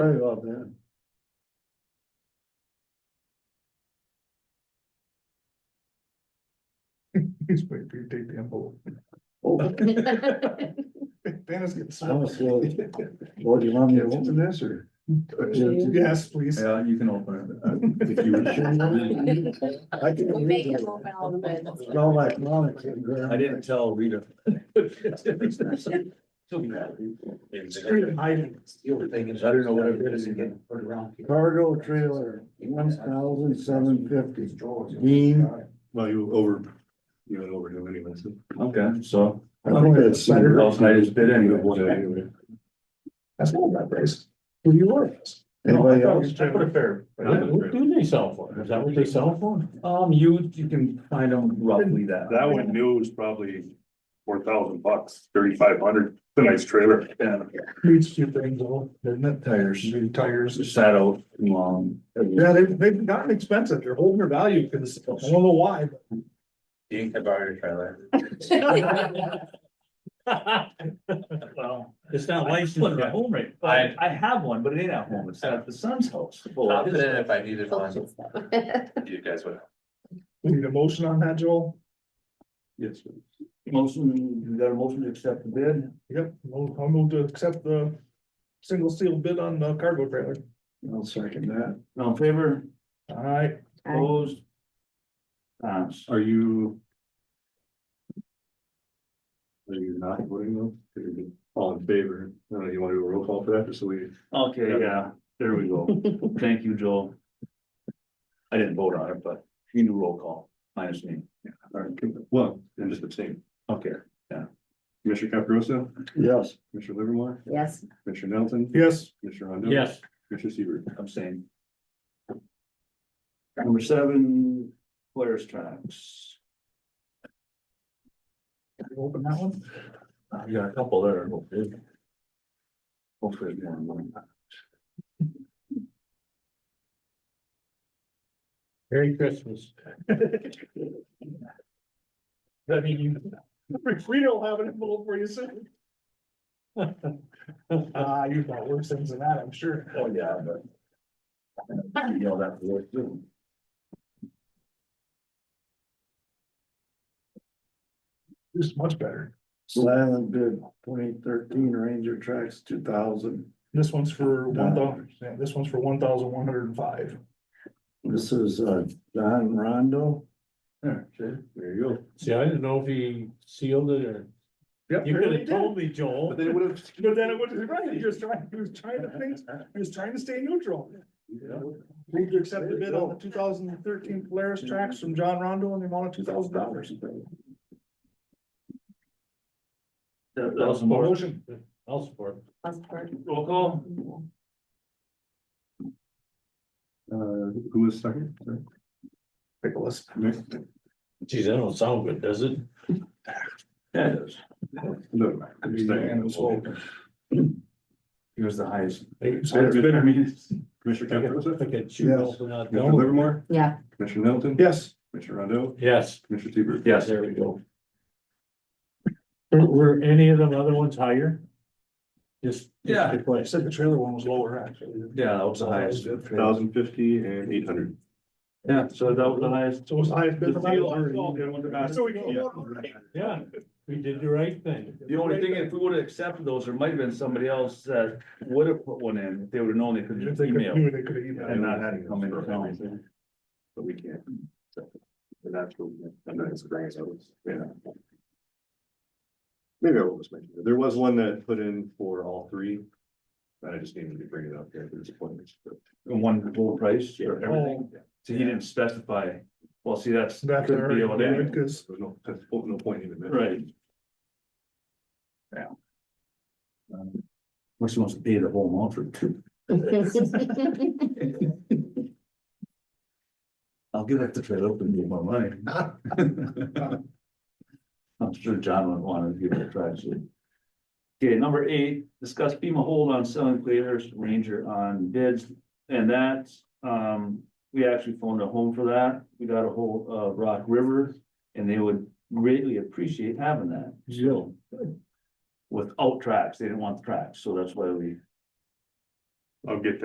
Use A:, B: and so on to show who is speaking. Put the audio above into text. A: Sorry about that.
B: He's waiting for you to take the envelope. Dennis gets.
A: I was slow. What do you want me to open this or?
B: Yes, please.
C: Yeah, you can open it. uh, If you wish.
A: I can
D: We make
A: read
D: him
A: it.
D: open all the bids.
A: It's all like Monica and Graham.
C: I didn't tell Rita. I don't know what it is again.
A: Cargo trailer, one thousand seven fifty. Dean.
E: Well, you over, you went over him anyway, so.
C: Okay, so.
A: I think that's better.
C: Last night is bid
E: You
C: anyway.
E: have one anyway.
B: That's not my place. Who you are?
A: Anybody else?
B: fair.
C: What do they sell for? Is that what they sell for? Um, you, you can find them roughly that.
E: That one new is probably four thousand bucks, thirty-five hundred, it's a nice trailer.
C: Yeah,
B: Needs two things though, doesn't it?
C: tires,
B: Need tires.
C: sat out too long.
B: Yeah, they've, they've gotten expensive. They're holding their value because I don't know why. but-
C: You can borrow your trailer.
F: Well, it's not
C: I
F: licensed
C: just put it at
F: yet.
C: home right, I, I have one, but it ain't at home, it's at the son's house.
G: Confident if I needed one, you guys would.
B: We need a motion on that, Joel?
C: Yes. Motion, you got a motion to accept the bid?
B: Yep, I'll I'll move to accept the single sealed bid on the cargo trailer.
A: I'll second that.
C: All in favor?
B: All right,
C: Opposed? Pass.
E: Are you? Are you not voting though? 'Cause you're All in favor, I don't know, you wanna do a roll call for that, just so we.
C: Okay, yeah, there we go. Thank you, Joel. I didn't vote on it, but you do roll call, minus me.
E: All right, well, and just abstain,
C: Okay.
E: Commissioner Caprosa,
A: Yes.
E: Commissioner Livermore,
D: Yes,
E: Commissioner Nelson,
B: yes.
E: Commissioner Rondo.
F: Yes,
E: Commissioner Seaver.
C: I'm saying. Number seven, players tracks. Can you Open that one? Uh, You got a couple there. hopefully. Hopefully. you want one.
F: Merry Christmas. I mean, you,
B: If we don't have an envelope for you soon. Ah, you've got worse things than that, I'm sure.
C: Oh, yeah, but. You know, that's worth doing.
B: This is much better.
A: Silent bid, twenty thirteen Ranger Tracks, two thousand.
B: This one's for one thousand, yeah, this one's for one thousand one hundred and five.
A: This is, uh, Don Rondo.
C: There, see?
E: There you go.
F: see, I didn't know if he sealed it or,
B: Yep.
F: you could have
B: But
F: told me, Joel.
E: they would have.
B: then it was, right, he was trying, he was trying to think, he was trying to stay neutral. Move to accept the bid on the two thousand and thirteen Polaris tracks from John Rondo in the amount of two thousand dollars.
C: That that
F: I'll
C: was more.
F: support. I'll support.
D: that's part.
C: Roll call.
E: Uh, who was second? Sorry.
B: Nicholas.
F: Geez, that don't sound good, does it?
C: That is.
E: No. I'm just
B: And it's all-
E: saying.
C: He was the highest.
F: It's
C: I mean, it's-
E: Commissioner Caprosa,
A: Yes.
E: Commissioner Livermore,
D: Yeah,
E: Commissioner Nelson.
B: Yes,
E: Commissioner Rondo,
F: Yes,
E: Commissioner Seaver.
C: Yes.
F: there we go. Were, were any of them other ones higher? Just. just
C: Yeah.
F: to
B: I
F: place.
B: said the trailer one was lower, actually.
C: Yeah, that was the highest.
E: Thousand fifty and eight hundred.
C: Yeah, so that was the highest.
B: So it was the highest bid.
C: The deal I saw, they went to-
B: So we go.
F: Yeah, we did the right thing.
C: The only thing, if we would have accepted those, there might have been somebody else that would have put one in, if they would have known they could
B: If
C: just
B: they could do
C: email.
B: it, they could email.
C: And not had it come in.
E: But we can't. And that's what, and that's great, so, it's- yeah. Maybe I was mentioning, there was one that put in for all three. But I just needed to bring it up here, there's points, but.
C: And one full price or everything, so he didn't specify, well, see, that's.
B: That's
C: could be able to-
B: because
E: There's no, there's no point even.
C: Right. uh, Yeah. Um, Which wants to pay the whole amount for two? I'll give up the trailer open, give my money. I'm sure John would want to give it a try, so. Okay, number eight, discuss FEMA hold on selling players ranger on bids, and that, um, we actually phoned a home for that. We got a hold of Rock River, and they would greatly appreciate having that. Jill. Without tracks, they didn't want the tracks, so that's why we
G: I'll get